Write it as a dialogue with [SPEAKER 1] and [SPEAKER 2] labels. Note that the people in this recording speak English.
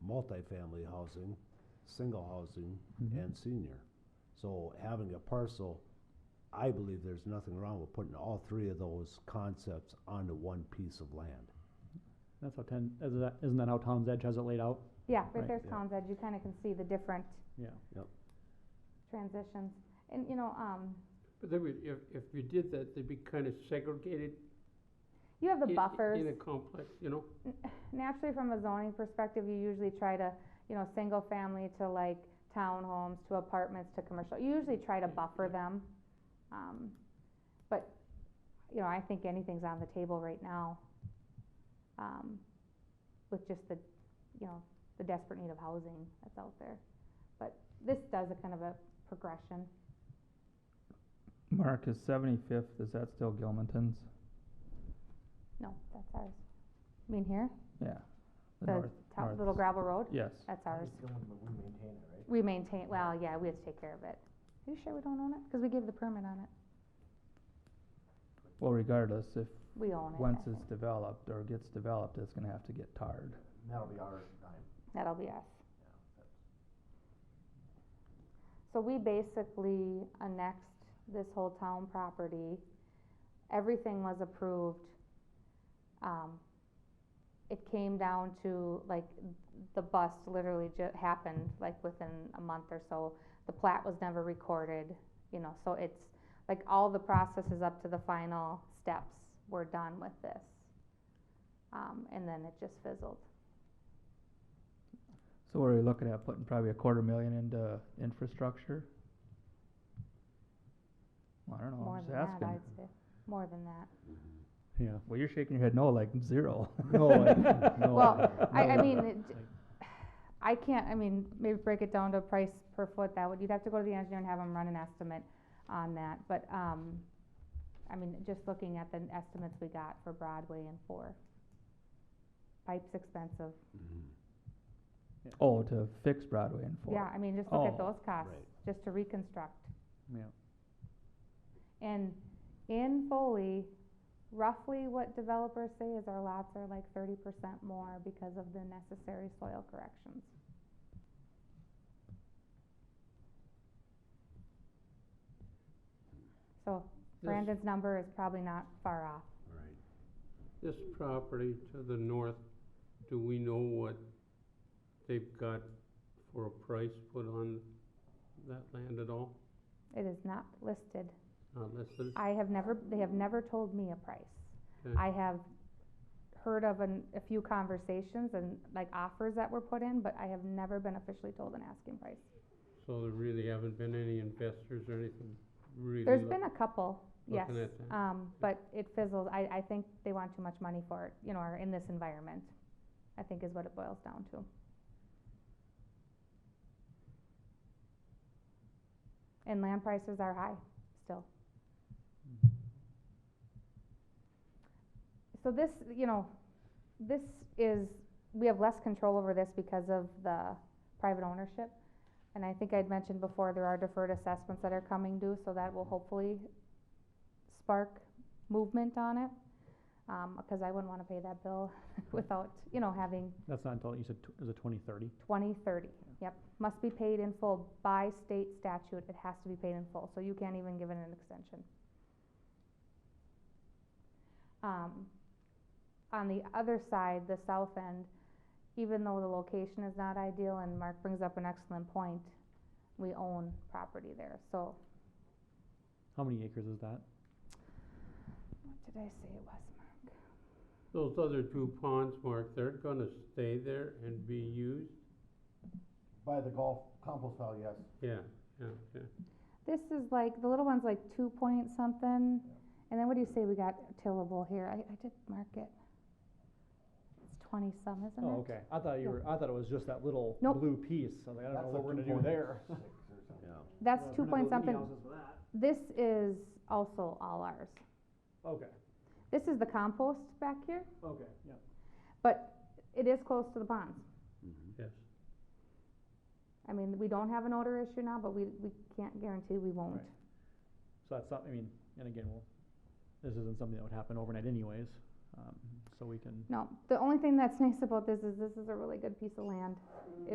[SPEAKER 1] multifamily housing, single housing,
[SPEAKER 2] Mhm.
[SPEAKER 1] and senior. So having a parcel, I believe there's nothing wrong with putting all three of those concepts onto one piece of land.
[SPEAKER 2] That's how ten, is that, isn't that how Town's Edge has it laid out?
[SPEAKER 3] Yeah, right
[SPEAKER 2] Right,
[SPEAKER 3] there's
[SPEAKER 1] yeah.
[SPEAKER 3] Town's Edge, you kinda can see the different
[SPEAKER 2] Yeah.
[SPEAKER 3] transitions. And, you know, um,
[SPEAKER 4] But they would, if, if you did that, they'd be kind of segregated.
[SPEAKER 3] you have the
[SPEAKER 4] in-
[SPEAKER 3] buffers.
[SPEAKER 4] In a complex, you know?
[SPEAKER 3] naturally, from a zoning perspective, you usually try to, you know, single family to like townhomes, to apartments, to commercial, you usually try to
[SPEAKER 4] Yeah,
[SPEAKER 3] buffer
[SPEAKER 4] yeah.
[SPEAKER 3] them. Um, but, you know, I think anything's on the table right now. Um, with just the, you know, the desperate need of housing that's out there. But this does a kind of a progression.
[SPEAKER 5] Mark, is seventy-fifth, is that still Gilmanton's?
[SPEAKER 3] No, that's ours. You mean here?
[SPEAKER 5] Yeah. The
[SPEAKER 3] The
[SPEAKER 5] north,
[SPEAKER 3] top,
[SPEAKER 5] north-
[SPEAKER 3] little gravel road?
[SPEAKER 5] Yes,
[SPEAKER 3] That's ours.
[SPEAKER 6] we maintain it, right?
[SPEAKER 3] We maintain, well, yeah, we have to take care of it. Are you sure we don't own it? Cause we gave the permit on it.
[SPEAKER 5] well regardless, if,
[SPEAKER 3] We own it. I
[SPEAKER 5] once
[SPEAKER 3] think.
[SPEAKER 5] it's developed or gets developed, it's gonna have to get tarred.
[SPEAKER 6] That'll be our dime.
[SPEAKER 3] That'll be us. So we basically annexed this whole town property. Everything was approved. Um, it came down to, like, the bust literally ju- happened, like, within a month or so. The plat was never recorded, you know, so it's, like, all the processes up to the final steps were done with this. Um, and then it just fizzled.
[SPEAKER 5] So we're looking at putting probably a quarter million into infrastructure? Well, I don't know,
[SPEAKER 3] More
[SPEAKER 5] I'm Oh, just
[SPEAKER 3] than that,
[SPEAKER 5] asking.
[SPEAKER 3] I'd say, more than that.
[SPEAKER 1] Mm-hmm.
[SPEAKER 2] Yeah.
[SPEAKER 5] Well, you're shaking your head no, like zero.
[SPEAKER 2] No, I-
[SPEAKER 5] Oh.
[SPEAKER 2] no.
[SPEAKER 3] Well, I, I
[SPEAKER 2] no.
[SPEAKER 3] mean, it d- I can't, I mean, maybe break it down to price per foot, that would, you'd have to go to the engineer and have him run an estimate on that, but, um, I mean, just looking at the estimates we got for Broadway and four. Pipe's expensive,
[SPEAKER 1] Mm-hmm.
[SPEAKER 5] Oh, to fix Broadway and four.
[SPEAKER 3] yeah, I mean, just look at
[SPEAKER 5] Oh,
[SPEAKER 3] those costs,
[SPEAKER 1] right.
[SPEAKER 3] just to reconstruct.
[SPEAKER 2] Yeah.
[SPEAKER 3] And in Foley, roughly what developers say is our lots are like thirty percent more because of the necessary soil corrections. So
[SPEAKER 4] This-
[SPEAKER 3] Brandon's number is probably not far off.
[SPEAKER 1] Right.
[SPEAKER 4] This property to the north, do we know what they've got for a price put on that land at all?
[SPEAKER 3] It is not listed.
[SPEAKER 4] Unless it's,
[SPEAKER 3] I have never, they have never told me a price.
[SPEAKER 4] Okay.
[SPEAKER 3] I have heard of an, a few conversations and like offers that were put in, but I have never been officially told an asking price.
[SPEAKER 4] so there really haven't been any investors or anything really?
[SPEAKER 3] There's
[SPEAKER 4] look-
[SPEAKER 3] been a couple, yes,
[SPEAKER 4] looking at that.
[SPEAKER 3] um, but it fizzles, I, I think they want too much money for it, you know, or in this environment, I think is what it boils down to. And land prices are high, still. So this, you know, this is, we have less control over this because of the private ownership. And I think I'd mentioned before, there are deferred assessments that are coming due, so that will hopefully spark movement on it. Um, cause I wouldn't wanna pay that bill without, you know, having
[SPEAKER 2] That's not until, you said, tw- is it twenty thirty?
[SPEAKER 3] twenty, thirty, yep. Must be paid in full by state statute, it has to be paid in full, so you can't even give it an extension. Um, on the other side, the south end, even though the location is not ideal, and Mark brings up an excellent point, we own property there, so,
[SPEAKER 2] How many acres is that?
[SPEAKER 3] what did I say it was, Mark?
[SPEAKER 4] Those other two ponds, Mark, they're gonna stay there and be used?
[SPEAKER 6] By the golf compost pile, yes.
[SPEAKER 4] Yeah, yeah, yeah.
[SPEAKER 3] This is like, the little one's like two point something, and then what do you say we got tillable here, I, I did mark it. It's twenty some, isn't it?
[SPEAKER 2] Oh, okay, I thought
[SPEAKER 3] Yeah.
[SPEAKER 2] you were, I thought it was just that little
[SPEAKER 3] Nope.
[SPEAKER 2] blue piece, I was like, I don't know
[SPEAKER 6] That's
[SPEAKER 2] what
[SPEAKER 6] a
[SPEAKER 2] we're gonna do
[SPEAKER 6] 2.6
[SPEAKER 2] there.
[SPEAKER 6] or something.
[SPEAKER 1] Yeah.
[SPEAKER 3] That's
[SPEAKER 2] Well,
[SPEAKER 3] two
[SPEAKER 2] we're
[SPEAKER 3] point something. This is also all ours.
[SPEAKER 2] Okay,
[SPEAKER 3] This is the compost back here,
[SPEAKER 2] okay, yeah.
[SPEAKER 3] but it is close to the ponds.
[SPEAKER 1] Mm-hmm.
[SPEAKER 4] Yes.
[SPEAKER 3] I mean, we don't have an odor issue now, but we, we can't guarantee we won't.
[SPEAKER 2] Right. So that's something, I mean, and again, well, this isn't something that would happen overnight anyways, um, so we can
[SPEAKER 3] No, the only thing that's nice about this is this is a really good piece of land.